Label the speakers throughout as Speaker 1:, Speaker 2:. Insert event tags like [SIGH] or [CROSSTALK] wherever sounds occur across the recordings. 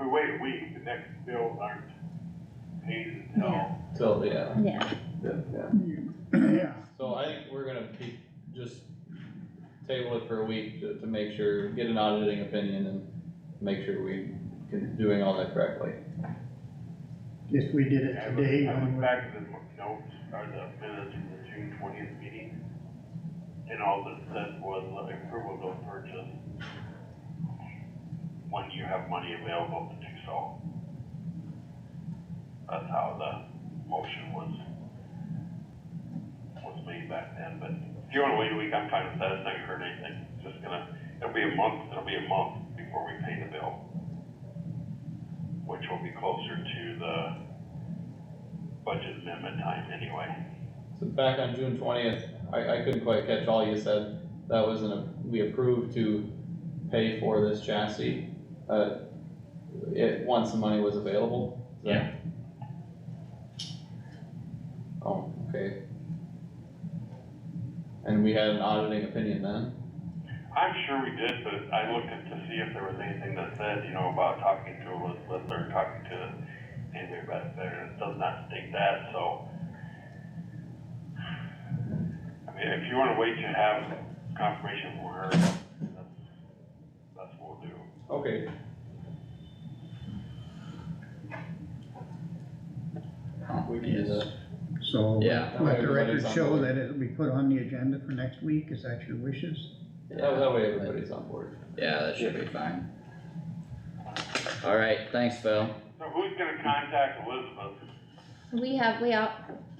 Speaker 1: wait a week, the next bills aren't paid until.
Speaker 2: So, yeah,
Speaker 3: yeah,
Speaker 4: Yeah,
Speaker 2: so I think we're gonna keep, just table it for a week to, to make sure, get an auditing opinion and make sure we can, doing all that correctly.
Speaker 4: if we did it
Speaker 1: I looked-
Speaker 4: today,
Speaker 1: I
Speaker 4: when
Speaker 1: looked
Speaker 4: we-
Speaker 1: back at the notes, or the minutes from the June twentieth meeting, and all that said was uh, approval of purchase. When you have money available to do so. That's how the motion was, was made back then, but if you wanna wait a week, I'm fine with that, it's not gonna hurt anything, It's just gonna, it'll be a month, it'll be a month before we pay the bill. Which will be closer to the budget amendment time anyway.
Speaker 2: So back on June twentieth, I, I couldn't quite catch all you said, that was an, we approved to pay for this chassis, uh, it, once the money was available? Is that- Oh, okay. And we had an auditing opinion then?
Speaker 1: I'm sure we did, but I looked at to see if there was anything that said, you know, about talking to Elizabeth or talking to anybody back there, and it does not state that, so. I mean, if you wanna wait to have confirmation from her, that's, that's what we'll do.
Speaker 2: Okay. We can do that.
Speaker 4: so
Speaker 5: Yeah.
Speaker 4: let the
Speaker 2: Everybody's
Speaker 4: record
Speaker 2: on
Speaker 4: show
Speaker 2: board.
Speaker 4: that it'll be put on the agenda for next week, is that your wishes?
Speaker 2: That, that way everybody's on board.
Speaker 5: Yeah, that should be fine. Alright, thanks, Phil.
Speaker 1: So who's gonna contact Elizabeth?
Speaker 3: we have, we all,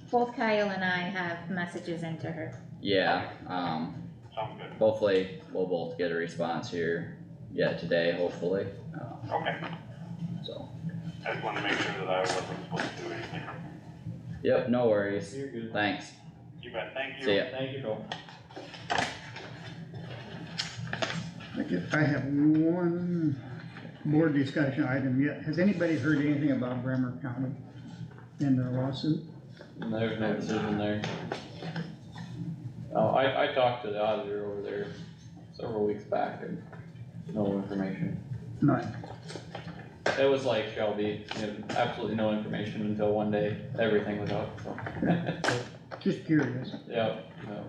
Speaker 3: both Kyle and I have messages into her,
Speaker 5: Yeah, um,
Speaker 1: Sounds good,
Speaker 5: hopefully we'll both get a response here yet today, hopefully, uh,
Speaker 1: okay,
Speaker 5: so.
Speaker 1: I just wanna make sure that I wasn't supposed to do anything.
Speaker 5: Yep, no worries.
Speaker 2: You're good.
Speaker 5: Thanks.
Speaker 1: You bet, thank you.
Speaker 5: See ya.
Speaker 2: Thank you, Joel.
Speaker 4: I just- I have one board discussion item yet, has anybody heard anything about Bremer County and their lawsuit?
Speaker 2: There's no decision there. Oh, I, I talked to the auditor over there several weeks back and no information.
Speaker 4: Not,
Speaker 2: It was like Shelby, you know, absolutely no information until one day, everything was out, so.
Speaker 4: just curious,
Speaker 2: Yeah, no.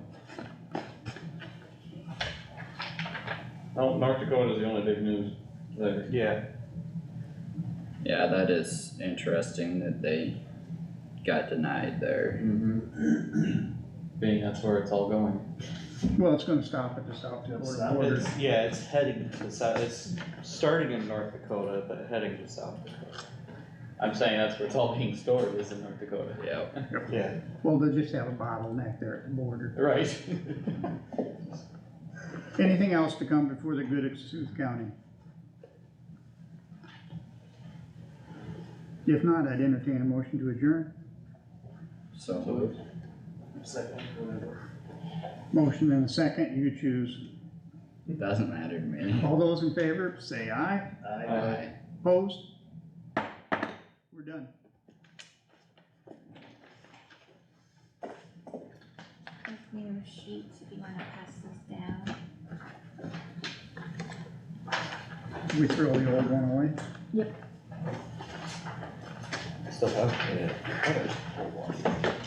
Speaker 2: No, Oh, North Dakota's the only big news there.
Speaker 6: Yeah,
Speaker 5: Yeah, that is interesting that they got denied there.
Speaker 2: Mm-hmm. Being that's where it's all going.
Speaker 4: well, it's gonna stop at the South Dakota border.
Speaker 6: it's, yeah, it's heading to South, it's starting in North Dakota, but heading to South Dakota.
Speaker 2: I'm saying that's where it's all being stored is in North Dakota.
Speaker 5: Yep,
Speaker 6: Yeah.
Speaker 4: Well, they'll just have a bottleneck there at the border.
Speaker 2: Right. [LAUGHS]
Speaker 4: Anything else to come before the good of South County? If not, I'd entertain a motion to adjourn.
Speaker 5: so
Speaker 2: moved.
Speaker 4: Motion and a second, you choose.
Speaker 5: doesn't matter to [LAUGHS] me.
Speaker 4: All those in favor, say aye.
Speaker 2: Aye.
Speaker 5: Bye.
Speaker 4: Opposed? We're done.
Speaker 3: Give me those sheets if you wanna pass those down.
Speaker 4: We throw the old one away.
Speaker 6: Still have, yeah.